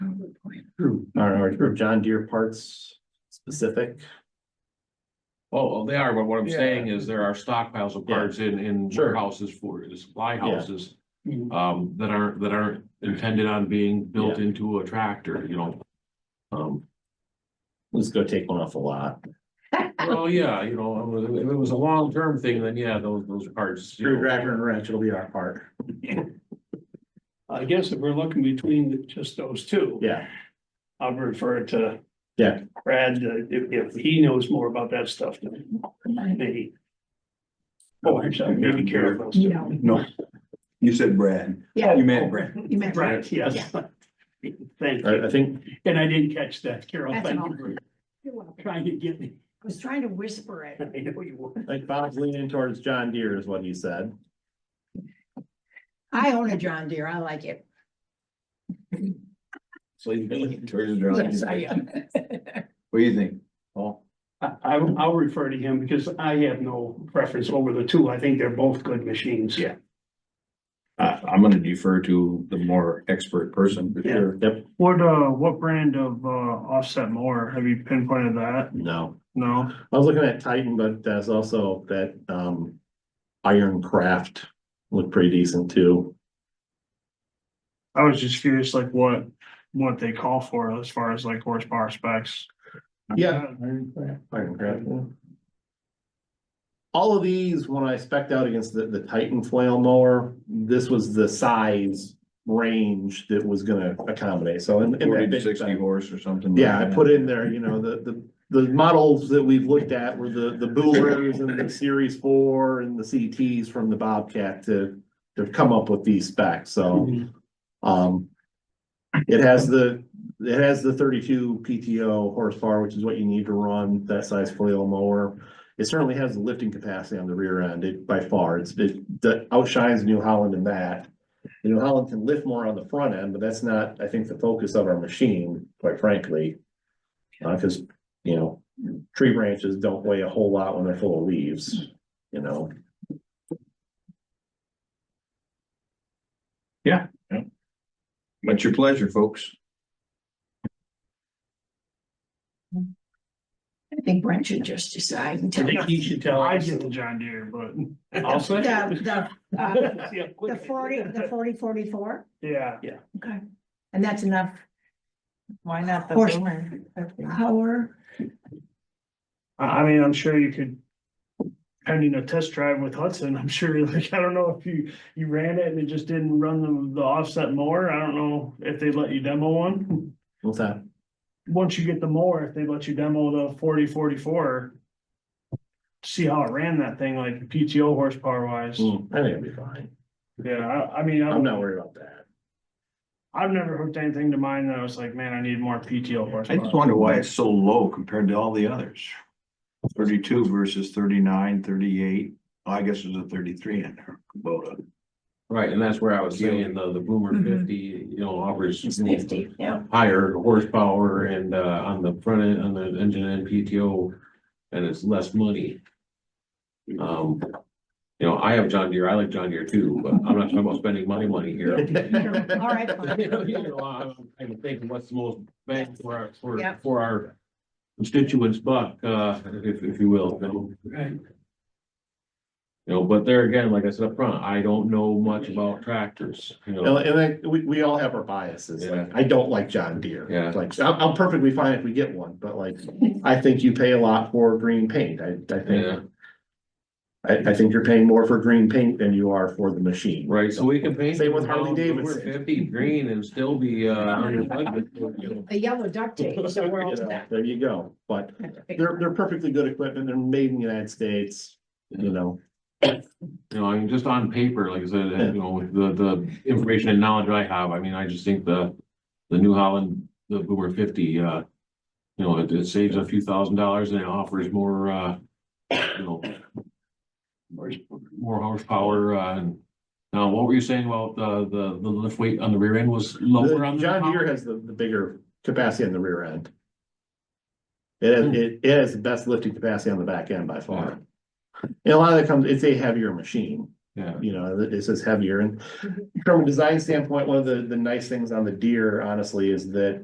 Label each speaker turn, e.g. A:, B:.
A: Are, are John Deere parts specific?
B: Oh, well, they are, but what I'm
C: Yeah.
B: saying is there are stockpiles of
A: Yeah.
B: parts in, in
A: Sure.
B: warehouses for the supply
A: Yeah. Mm-hmm.
B: houses. Um, that aren't, that aren't intended on being built into a tractor, you know? Um,
A: Let's go take one off a lot.
B: well, yeah, you know, if it was a long-term thing, then yeah, those, those parts. you know.
A: Screwdriver and wrench will be our part.
C: I guess if we're looking between the- just those two.
A: Yeah,
C: I'll refer to.
A: Yeah.
C: Brad, uh, if, if he knows more about that stuff than me. Oh, I'm sorry, maybe Carol. knows too.
D: No.
E: No. You said Brad.
D: Yeah.
E: You
A: Oh.
E: meant Brad.
D: You meant right.
C: Brad, yes. Thank
A: I, I
C: you.
A: think,
C: And I didn't catch that, Carol.
D: That's
C: Thank
D: all.
C: you for
D: You're welcome. I
C: trying to get me.
D: was trying to whisper it.
C: I know you were.
A: like Bob's leaning towards John Deere is what he said.
D: I own a John Deere. I like it.
E: So you
D: Yes, I am.
E: What do you think? Paul?
C: I, I, I'll refer to him because I have no preference over the two. I think they're both good machines.
E: Yeah. Uh, I'm gonna defer to the more expert person for
C: Yeah.
E: sure.
A: Yep,
F: What, uh, what brand of, uh, offset mower? Have you pinpointed that?
A: no.
F: No?
A: I was looking at Titan, but there's also that, um, Iron Craft looked pretty decent too.
F: I was just curious, like what, what they call for as far as like horsepower specs.
A: Yeah. Iron Craft. yeah. All of these, when I spec'd out against the, the Titan flail mower, this was the size range that was gonna accommodate, so in. in that
E: Forty to
A: big
E: sixty
A: thing-
E: horse or something.
A: Yeah, I put in there, you know, the, the, the models that we've looked at were the, the Boolers and the Series Four and the CTs from the Bobcat to, to come up with these specs, so, um. It has the, it has the thirty-two PTO horsepower, which is what you need to run that size flail mower. It certainly has the lifting capacity on the rear end, it by far, it's, it, that outshines New Holland in that. The New Holland can lift more on the front end, but that's not, I think, the focus of our machine, quite frankly. Uh, cause, you know, tree branches don't weigh a whole lot when they're full of leaves, you know?
E: But your pleasure, folks.
D: I think Brent should just decide and
C: I
D: tell
C: think
D: the,
C: he should tell
F: I
C: us.
F: get the John Deere, but
C: Also.
D: the, uh,
C: Yeah, quick.
D: the forty, the forty, forty-four.
F: yeah,
D: Okay. And that's enough
G: Why not the
D: Horse-
G: boomer?
D: power.
F: I, I mean, I'm sure you could. Pending a test drive with Hudson, I'm sure, like, I don't know if you, you ran it and it just didn't run the, the offset mower. I don't know if they let you demo one.
A: What's that?
F: Once you get the mower, if they let you demo the forty forty-four. See how it ran that thing, like PTO horsepower wise.
A: Hmm, I think it'll be fine,
F: Yeah, I, I mean,
A: I'm
F: I've,
A: not worried about that.
F: I've never hooked anything to mine that I was like, man, I need more PTO
E: I just
F: horsepower.
E: wonder why it's so low compared to all the others. Thirty-two versus thirty-nine, thirty-eight. I guess there's a thirty-three in there, Kubota.
B: Right, and that's where I was saying the, the boomer
D: Mhm.
A: Mm-hmm.
B: fifty, you know, offers.
D: It's nifty, yeah.
B: higher horsepower and uh on the front end, on the engine and PTO, and it's less money. Um, you know, I have John Deere, I like John Deere too, but I'm not talking about spending money money here.
D: All right,
B: You know,
D: fine.
B: I'm I'm thinking what's the most bang for our, for,
D: Yep.
B: for our constituents buck, uh, if, if you will, you know?
C: Right.
B: You know, but there again, like I said up front, I don't know much about tractors, you know?
A: And and like, we, we all have our biases, like, I don't like John Deere.
B: Yeah.
A: Like, I'm, I'm perfectly fine if we get one, but like, I think you pay a lot for green paint, I, I
B: Yeah.
A: think. I, I think you're paying more for green paint than you are for the machine.
B: Right, so we can paint.
A: Same with Harley
B: them down to
A: Davidson.
B: Fifty green and still be, uh, under budget.
D: The yellow duct tape, so we're all
A: You know,
D: set.
A: There you go, but They're, they're perfectly good equipment, they're made in the United States, you know,
B: You know, I mean, just on paper, like I said, uh, you know, with the, the information and knowledge I have, I mean, I just think the, the New Holland, the Boomer fifty, uh, you know, it, it saves a few thousand dollars and it offers more, uh, you know, more horsepower, uh, and now what were you saying about the, the, the lift weight on the rear end was lower
A: the-
B: on the?
A: John Deere has the, the bigger capacity on the rear end. It,
B: Hmm.
A: has- it, it has the best lifting capacity on the back end by far. And a lot of that comes, it's a heavier machine.
B: Yeah,
A: you know, it's just heavier and from a design standpoint, one of the, the nice things on the deer honestly is that